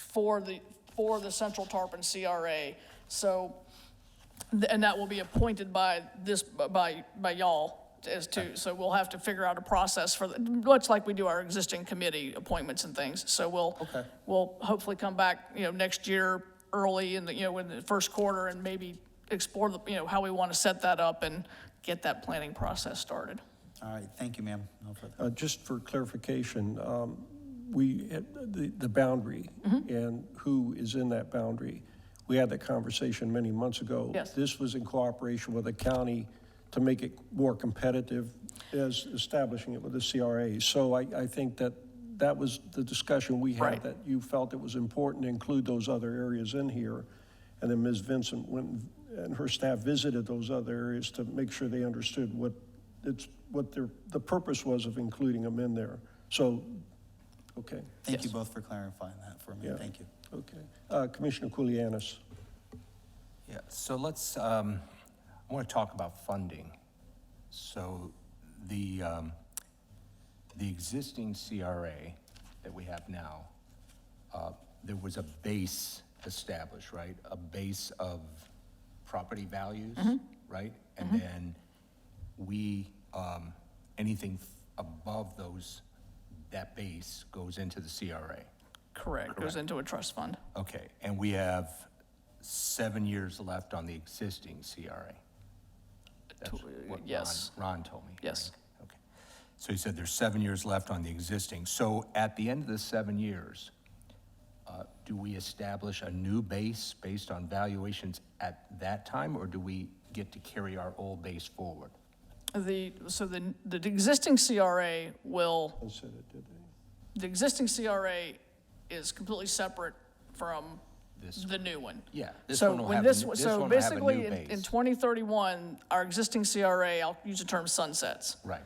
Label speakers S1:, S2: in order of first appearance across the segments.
S1: for the, for the Central Tarpon CRA. So, th- and that will be appointed by this, by, by y'all as to, so we'll have to figure out a process for, the- much like we do our existing committee appointments and things. So we'll,
S2: Okay.
S1: we'll hopefully come back, you know, next year early in the, you know, in the first quarter and maybe explore the, you know, how we want to set that up and get that planning process started.
S2: All right, thank you, ma'am. No further-
S3: Uh, Just for clarification, um, we, the the boundary and who is in that boundary, we had that conversation many months ago.
S1: Yes.
S3: This was in cooperation with the county to make it more competitive as establishing it with the CRA. So I, I think that that was the discussion we
S1: Right.
S3: had, that you felt it was important to include those other areas in here. And then Ms. Vincent went and her staff visited those other areas to make sure they understood what it's, what their, the purpose was of including them in there. So, okay,
S2: Thank you
S1: Yes.
S2: both for clarifying that for me.
S3: Yeah.
S2: Thank you.
S3: okay. Uh, Commissioner Kulianis.
S4: Yeah, so let's, um, I want to talk about funding. So the, um, the existing CRA that we have now, uh, there was a base established, right? A base of property values, right? And then we, um, anything f- above those, that base goes into the CRA.
S1: Correct, goes into a trust fund.
S4: Okay, and we have seven years left on the existing CRA? That's what Ron-
S1: yes.
S4: Ron told me.
S1: Yes.
S4: right? Okay. So he said there's seven years left on the existing. So at the end of the seven years, uh, do we establish a new base based on valuations at that time, or do we get to carry our old base forward?
S1: The, so the, the existing CRA will,
S3: I said it, did they?
S1: the existing CRA is completely separate from
S4: This
S1: the new one.
S4: Yeah, this
S1: So
S4: one will
S1: when
S4: have a
S1: this
S4: new-
S1: one-
S4: this
S1: So
S4: one will have a
S1: basically,
S4: new
S1: in- in
S4: base.
S1: 2031, our existing CRA, I'll use the term sunsets.
S4: Right,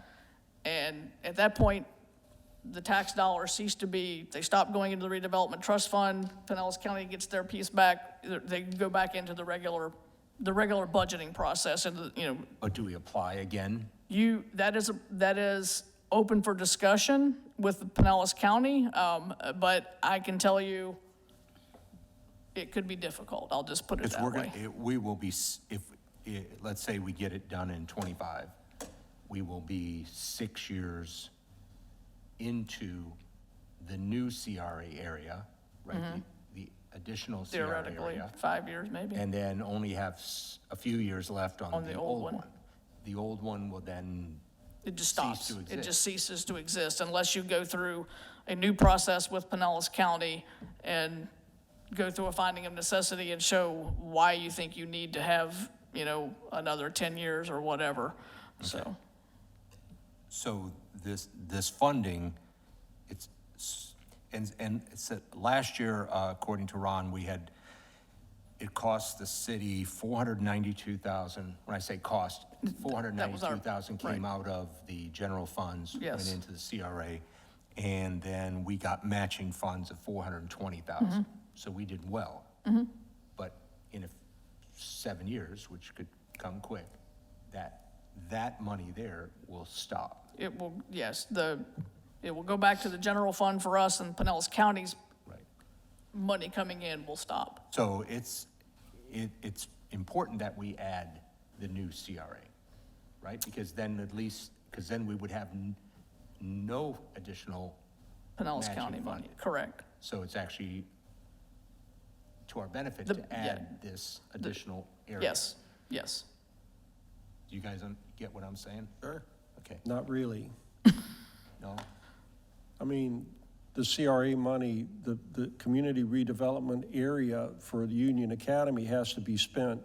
S1: And at that point, the tax dollars cease to be, they stop going into the redevelopment trust fund, Pinellas County gets their piece back, they go back into the regular, the regular budgeting process, and, you know,
S4: but do we apply again?
S1: you, that is, a- that is open for discussion with Pinellas County, um, but I can tell you, it could be difficult, I'll just put it
S4: Because
S1: that
S4: we're
S1: way.
S4: going, we will be, s- if, i- let's say we get it done in '25, we will be six years into the new CRA area, right? The the additional CRA
S1: Mm-hmm. Theoretically,
S4: area.
S1: five years maybe.
S4: And then only have s- a few years left on the old one. The old one will then,
S1: It just
S4: cease
S1: stops.
S4: to
S1: It just ceases to exist unless you go through a new process with Pinellas County and go through a finding of necessity and show why you think you need to have, you know, another 10 years or whatever. So,
S4: so this, this funding, it's, s- and, and it's, a- last year, uh, according to Ron, we had it cost the city four hundred ninety-two thousand, when I say cost, four hundred
S1: that was our-
S4: ninety-two thousand came
S1: right.
S4: out of the general funds.
S1: Yes.
S4: Went into the CRA, and then we got matching funds of four hundred and twenty thousand. So we did well. But in a f- seven years, which could come quick, that, that money there will stop.
S1: it will, yes, the, it will go back to the general fund for us and Pinellas County's
S4: Right.
S1: money coming in will stop.
S4: So it's, it, it's important that we add the new CRA, right? Because then at least, because then we would have n- no additional,
S1: Pinellas
S4: Matching
S1: County
S4: fund.
S1: money, correct.
S4: so it's actually to our benefit
S1: The-
S4: to
S1: yeah.
S4: add this additional area.
S1: Yes, yes.
S4: Do you guys un- get what I'm saying? Sure. Okay,
S3: Not really.
S4: no?
S3: I mean, the CRA money, the, the community redevelopment area for the Union Academy has to be spent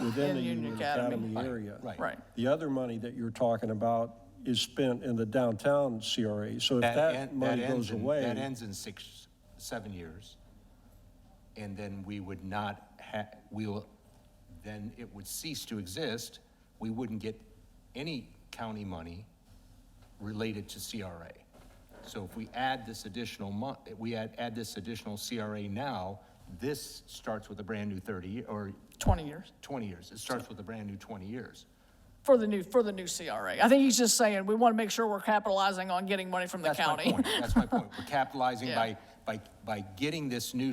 S3: within the Union Academy area.
S4: Right.
S1: Right.
S3: The other money that you're talking about is spent in the downtown CRA, so if
S4: en-
S3: that money
S4: ends
S3: goes
S4: in-
S3: away.
S4: That ends in six, seven years. And then we would not ha, we'll, then it would cease to exist. We wouldn't get any county money related to CRA. So if we add this additional mon, we add, add this additional CRA now, this starts with a brand-new thirty, or
S1: 20 years.
S4: twenty years. It starts with a brand-new twenty years.
S1: For the new, for the new CRA. I think he's just saying, we want to make sure we're capitalizing on getting money from the
S4: That's my
S1: county.
S4: point. That's my point. We're capitalizing
S1: Yeah.
S4: by, by, by getting this new